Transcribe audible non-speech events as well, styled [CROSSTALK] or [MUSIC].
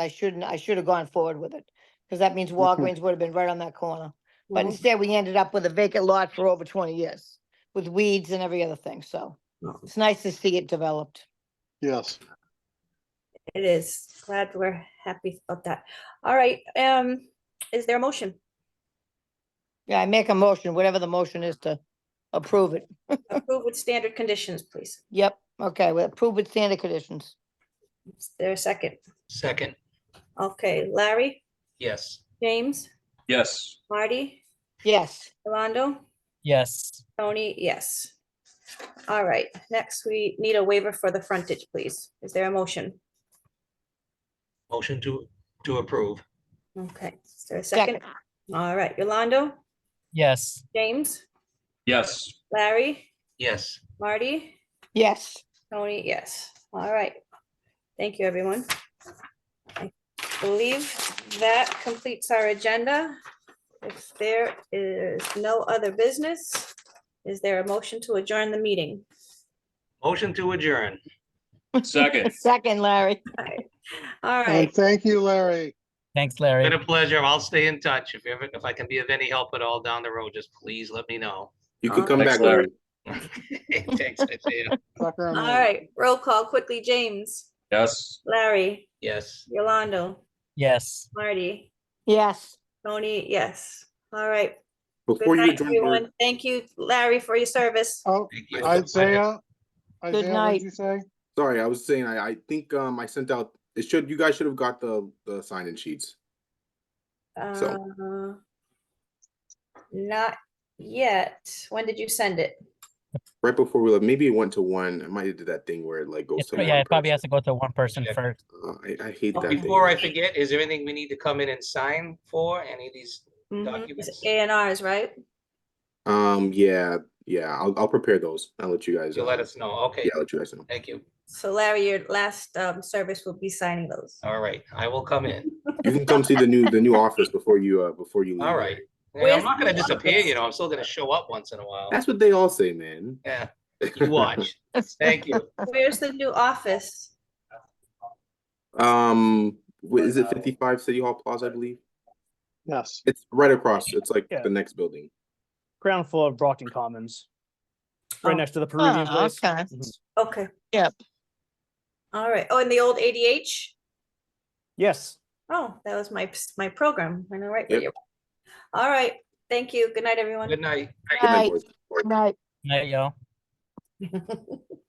I shouldn't, I should have gone forward with it. Because that means Walgreens would have been right on that corner. But Mhm. instead, we ended up with a vacant lot for over twenty years with weeds and every other thing. So it's nice to see it developed. Yes, It is. Glad we're happy about that. All right, um, is there a motion? Yeah, I make a motion, whatever the motion is to approve it. Approve with standard conditions, please. Yep, okay, we approve with standard conditions. Is there a second? Second, Okay, Larry, yes. James, Yes, Marty, Yes, Yolando, yes, Tony, yes. All right, next we need a waiver for the frontage, please. Is there a motion? Motion to, to approve, Okay, is there a second, second? All right, Yolando, yes, James, yes, Larry, yes. Marty, yes. [LAUGHS] Tony, yes. All right. Thank you, everyone. I believe that completes our agenda. If there is no other business, is there a motion to adjourn the meeting? Motion to adjourn. [LAUGHS] second. Second, Larry. All and right, thank you, Larry. thanks, Been Larry. a pleasure. I'll stay in touch. If ever, if I can be of any help at all down the road, just please let me know. You Uh-huh. could come Thanks, back, Larry. Larry. Thanks, Isaiah. Sucker all on that. right. Roll call quickly. James, Yes. Larry, [LAUGHS] Yes. Yolando, Yes. Marty, Yes. Tony, yes. All right. Before Good you night, adjourn, Larry, everyone. Thank you, Larry, for your service. Oh, Thank you. uh, Isaiah, Isaiah, what night. did you say? sorry, I was saying, I, I think, um, I sent out, it should, you guys should have got the, the sign-in sheets. So- Uh, Not yet. When did you send it? Right before we left, maybe it went to one, I might have did that thing where it like goes It's- to. Yeah, one it probably has person. to go to one person Check. first. Uh, I, I hate But that thing. Oh, Before I forget, is there anything we need to come in and sign for? Any of these? Mm-hmm. Documents. A and Rs, right? Um, yeah, yeah, I'll, I'll prepare those, I'll let you guys. You'll uh, let us know. Okay. Yeah, I'll let you guys know. Thank you. So Larry, your last um, service will be signing those. All right. I will come in. [LAUGHS] You can come see the new, the new office before you, uh, before you. leave. All right. Yeah, Where's I'm not gonna the disappear, office? you know, I'm still gonna show up once in a while. That's what they all say, man. Yeah, you watch. Thank you. Where's the new office? Um, wh- is it fifty-five City Hall Plaza, I believe? Yes, It's right across, it's like Yeah. the next building. ground floor of Brockton Commons. Oh. Right next to the Peruvian [LAUGHS] Oh, place. okay. Mhm. Okay. Yep. All right. Oh, and the old ADH? Yes. Oh, that was my, my program. I know, right? Yep. where you- All right. Thank you. Good night, everyone. Good night. Good night, Right. boys. Right. Night, y'all.